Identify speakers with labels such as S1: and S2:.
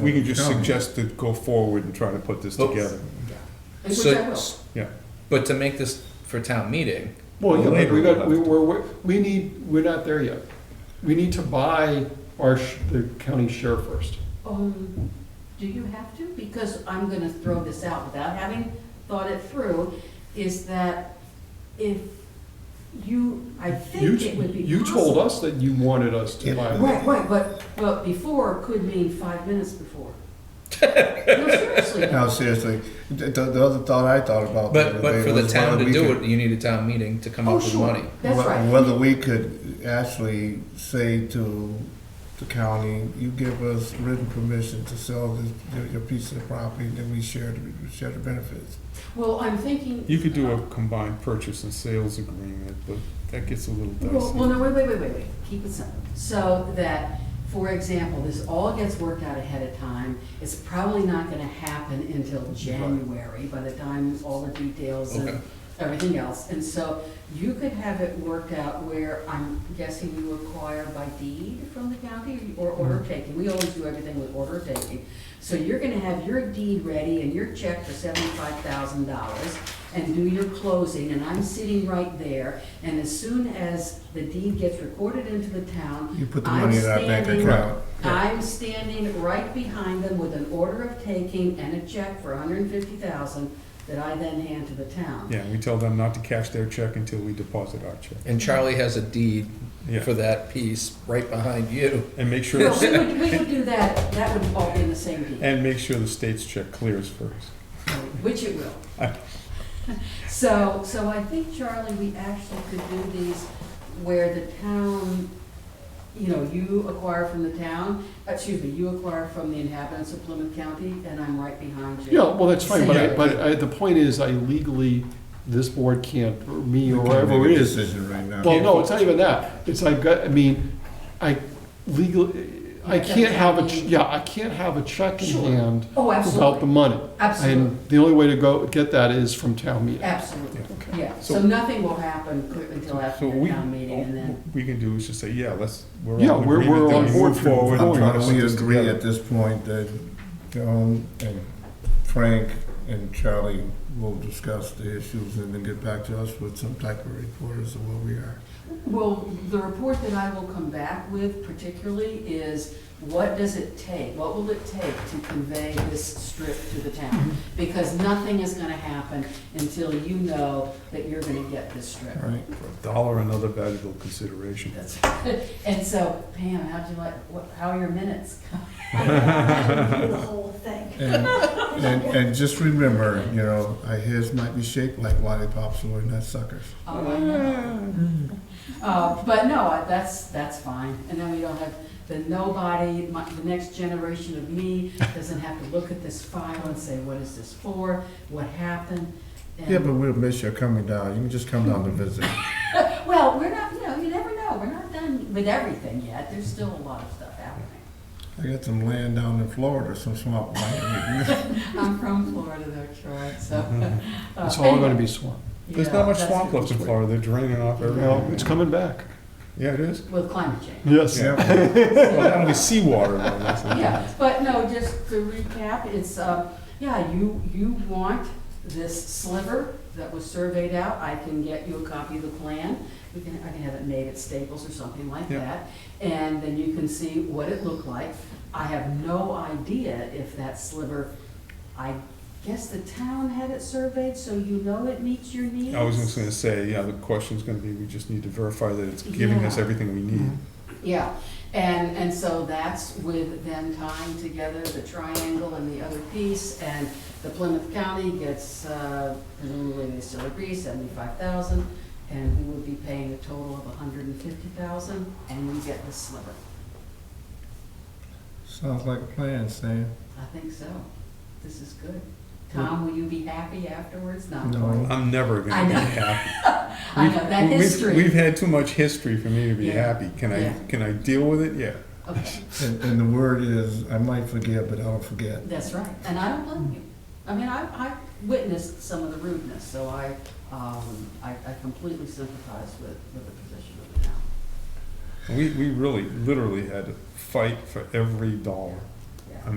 S1: We can just suggest to go forward and try to put this
S2: Oh.
S1: together.
S2: Which
S3: So-
S2: I will.
S1: Yeah.
S3: But to make this for town meeting,
S4: Well, yeah, but
S1: Later
S4: we
S1: we'll
S4: got,
S1: have
S4: we,
S1: to-
S4: we're, we're- we need, we're not there yet. We need to buy our, sh- the county share first.
S2: Um, do you have to? Because I'm gonna throw this out without having thought it through, is that if you, I
S4: You,
S2: think
S4: t-
S2: it would be possible.
S4: you told us that you wanted us to buy. it.
S2: Right, right, but, but before could mean five minutes before. No, seriously.
S5: No, seriously, the, the the other thought I thought about.
S3: but,
S5: other
S3: but
S5: day
S3: for the
S5: was
S3: town
S5: whether
S3: to
S5: we
S3: do
S5: could-
S3: it, you need a town meeting to come
S2: Oh,
S3: up with
S2: sure,
S3: money.
S2: that's
S5: whe-
S2: right.
S5: Whether we could actually say to the county, you give us written permission to sell this, your, your piece of property, then we share, the we share the benefits.
S2: Well, I'm thinking,
S1: You could do a combined purchase and sales agreement, but that gets a little
S2: well, well, no,
S1: dicey.
S2: wait, wait, wait, wait, wait, keep it simple. So that, for example, this all gets worked out ahead of time. It's probably not gonna happen until January, by the time all the details
S3: Okay.
S2: and everything else. And so you could have it worked out where I'm guessing you acquire by deed from the county or order of taking. We always do everything with order of taking. So you're gonna have your deed ready and your check for seventy-five thousand dollars and do your closing, and I'm sitting right there. And as soon as the deed gets recorded into the town.
S5: You put the
S2: I'm
S5: money in our bank
S2: standing-
S5: account.
S2: I'm standing right behind them with an order of taking and a check for $150,000 that I then hand to the town.
S1: Yeah, we tell them not to cash their check until we deposit our check.
S3: And Charlie has a deed
S1: Yeah.
S3: for that piece right behind you.
S1: And make sure,
S2: No, we would, we would do that, that would all be in the same deed,
S1: and make sure the state's check clears first.
S2: which it will. So, so I think, Charlie, we actually could do these where the town, you know, you acquire from the town, excuse me, you acquire from the inhabitants of Plymouth County, and I'm right behind you.
S4: Yeah, well, that's fine, but I,
S1: Yeah.
S4: but I, the point is, I legally, this board can't, or me or
S5: We can't
S4: whoever
S5: make
S4: it
S5: a
S4: is.
S5: Decision right now.
S4: Well, no, it's not even that. It's I've got, I mean, I legally, I can't have a, ch- yeah, I can't have a check in
S2: Sure.
S4: hand
S2: Oh,
S4: without the
S2: absolutely,
S4: money.
S2: absolutely,
S4: And the only way to go, get that is from town meeting.
S2: absolutely.
S4: Okay.
S2: Yeah,
S1: So-
S2: so nothing will happen cl- until
S1: So
S2: after the
S1: we,
S2: town meeting
S1: what
S2: and then,
S1: we can do is just say, yeah, let's, we're
S4: Yeah,
S1: all in
S4: we're-
S1: agreement
S4: we're
S1: that
S4: on
S1: we
S4: board
S1: move
S4: for-
S1: forward
S4: for
S1: and
S4: it.
S1: try
S5: How
S1: to
S5: do
S1: put
S5: we
S1: this
S5: agree at
S1: together.
S5: this point that Joan and Frank and Charlie will discuss the issues and then get back to us with some type of report as to where we are?
S2: well, the report that I will come back with particularly is what does it take? What will it take to convey this strip to the town? Because nothing is gonna happen until you know that you're gonna get this strip.
S5: All right,
S1: For a Dollar and other valuable consideration.
S2: That's- And so Pam, how'd you like, what, how are your minutes?
S6: I the whole thing.
S5: And, and, and just remember, you know, our heads might be shaped like lollipops and we're not suckers.
S2: Oh, I know. Uh, But no, I- that's, that's fine. And then we don't have the nobody, my- the next generation of me doesn't have to look at this file and say, what is this for? What happened? And-
S5: Yeah, but we'll miss you coming down. You can just come down to visit.
S2: Well, we're not, you know, you never know. We're not done with everything yet. There's still a lot of stuff happening.
S5: I got some land down in Florida, some swamp land.
S2: I'm from Florida though, Troy, so.
S1: Mm-hmm.
S2: uh,
S4: It's all gonna
S2: anyway,
S4: be swamp.
S1: There's
S2: yeah,
S1: not much
S2: that's
S1: swamp
S2: good.
S1: left in Florida, they're draining off
S4: Well,
S1: everything.
S4: it's coming back.
S1: Yeah, it is.
S2: With climate change.
S4: Yes.
S5: Yeah,
S1: Well, only seawater. though, that's not-
S2: Yeah, but no, just to recap, it's, uh, yeah, you, you want this sliver that was surveyed out, I can get you a copy of the plan. We can, I can have it made at Staples or something like
S1: Yeah.
S2: that, and then you can see what it looked like. I have no idea if that sliver, I guess the town had it surveyed, so you know it meets your needs.
S1: I was just gonna say, yeah, the question's gonna be, we just need to verify that it's giving us
S2: Yeah.
S1: everything we need.
S2: Yeah, and, and so that's with them tying together the triangle and the other piece, and the Plymouth County gets, uh, presumably they still agree, seventy-five thousand, and we would be paying a total of a hundred and fifty thousand, and we get the sliver.
S5: Sounds like a plan, Sam.
S2: I think so. This is good. Tom, will you be happy afterwards? Not
S5: No.
S2: quite.
S1: I'm never
S2: I
S1: gonna be
S2: know.
S1: happy.
S2: I know, that
S1: We've-
S2: history.
S1: We've had too much history for me to be
S2: Yeah.
S1: happy. Can I,
S2: Yeah.
S1: can I deal with it? Yeah.
S2: Okay,
S5: And, and the word is, I might forget, but I don't forget.
S2: that's right, and I don't blame you. I mean, I, I witnessed some of the rudeness, so I, um, I, I completely sympathize with, with the position of the town.
S1: We, we really, literally had to fight for every dollar.